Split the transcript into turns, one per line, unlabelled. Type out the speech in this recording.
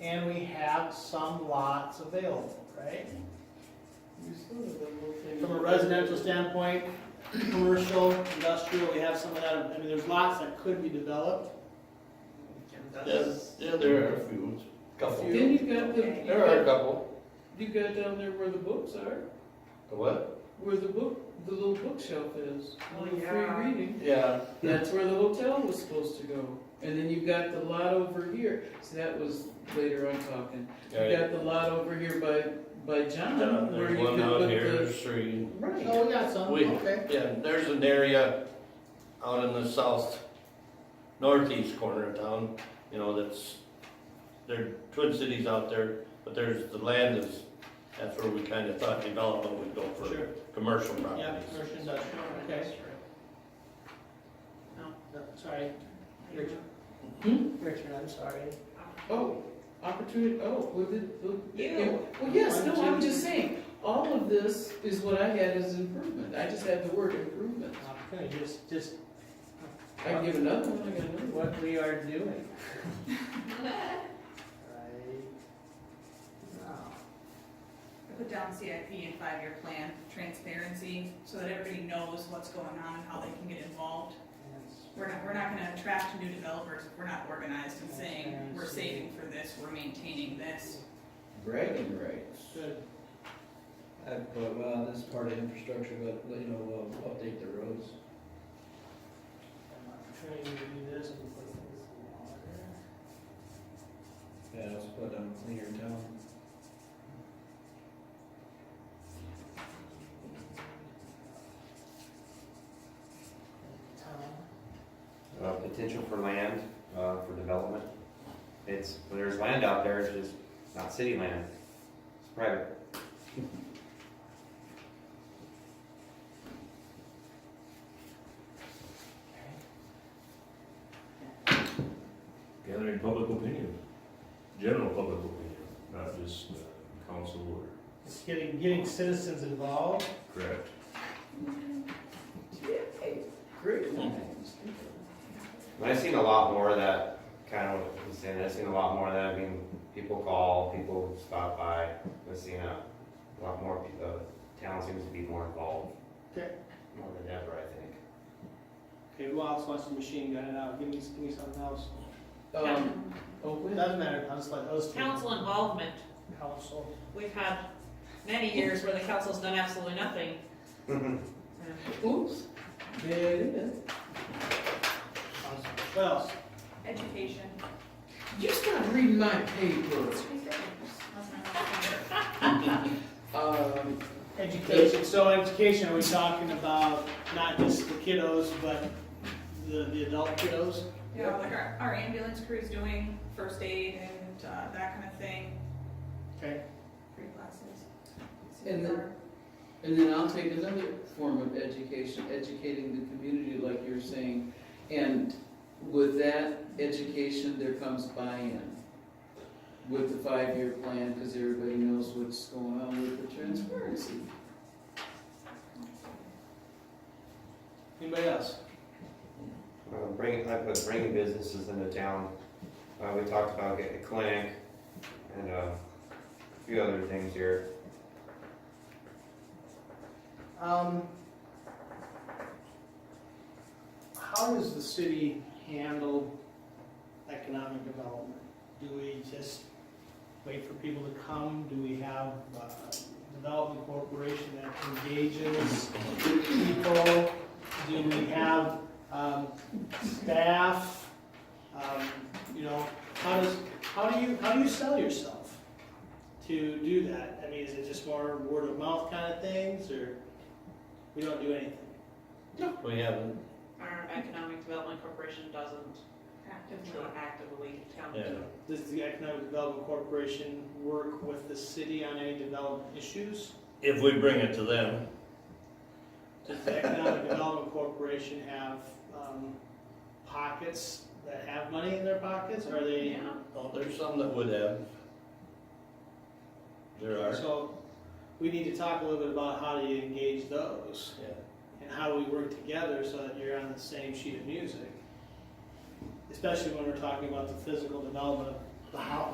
and we have some lots available, right? From a residential standpoint, commercial, industrial, we have some of that, I mean, there's lots that could be developed.
Yes, yeah, there are a few.
Couple.
Then you've got the, you've
There are a
got,
couple.
you've got down there where the books are,
The what?
where the book, the little bookshelf is.
Oh,
little
yeah.
Free reading,
Yeah,
that's where the hotel was supposed to go. And then you've got the lot over here, so that was later on talking. You
yeah,
got the lot over here by, by John, where you
There's one
could
out
put
here,
the.
there's three.
Right,
Oh, we got some,
We-
okay.
Yeah, there's an area out in the south, northeast corner of town, you know, that's, there are twin cities out there, but there's, the land is, that's where we kinda thought development would go
Sure.
for commercial
Yeah,
properties.
commercial, industrial, okay. No, no, sorry, Richard. Richard, I'm sorry.
oh, opportunity, oh, well, did, well,
You.
yeah, well, yes, no,
One,
I'm
two.
just saying, all of this is what I had as improvement, I just had the word improvement.
Okay, just, just
I can give another one, I got another one.
what we are doing. Right now.
I Put down CIP and five-year plan, transparency, so that everybody knows what's going on and how they can get involved. We're not, we're not gonna attract new developers if we're not organized and saying, we're saving for this, we're maintaining this.
Bragging rights.
Good.
I put, well, this is part of infrastructure, but, you know, uh, update the roads.
Trying to do this and put this in order.
Yeah, let's put on cleaner town.
Tom,
uh, potential for land, uh, for development. It's, well, there's land out there, it's just not city land, it's private.
gathering public opinion, general public opinion, not just uh, council or,
It's getting, getting citizens involved.
correct?
Great lines.
But I've seen a lot more of that, kind of what he's saying, I've seen a lot more of that, I mean, people call, people stop by, I've seen a lot more, pe- the town seems to be more involved.
Okay.
More than ever, I think.
Okay, who else wants to machine gun it out? Give me, give me something else.
Um, oh,
It
wait.
doesn't matter, I'll just let those two.
Council involvement,
Council.
we've had many years where the council's done absolutely nothing.
oops, there it is.
What else?
Education.
You stop reading my paper. Um,
Education, so education, are we talking about not just the kiddos, but the, the adult kiddos?
Yeah, like our, our ambulance crew's doing first aid and, uh, that kind of thing,
Okay,
free classes.
And then- and then I'll take another form of education, educating the community like you're saying. And with that education, there comes buy-in with the five-year plan, because everybody knows what's going on with the transparency.
anybody else?
Uh, bring, I put bringing businesses into town, uh, we talked about getting a clinic and, uh, a few other things here.
Um, how does the city handle economic development? Do we just wait for people to come? Do we have a development corporation that engages people? Do we have, um, staff? Um, you know, how does, how do you, how do you sell yourself to do that? I mean, is it just more word of mouth kind of things, or? We don't do anything.
We haven't,
Our Economic Development Corporation doesn't
Active.
actively count.
yeah.
Does the Economic Development Corporation work with the city on any development issues?
If we bring it to them,
Does the Economic Development Corporation have um, pockets that have money in their pockets? Are they?
Yeah.
oh, there's some that would have. There are,
So we need to talk a little bit about how do you engage those
yeah.
and how do we work together so that you're on the same sheet of music? Especially when we're talking about the physical development of the house.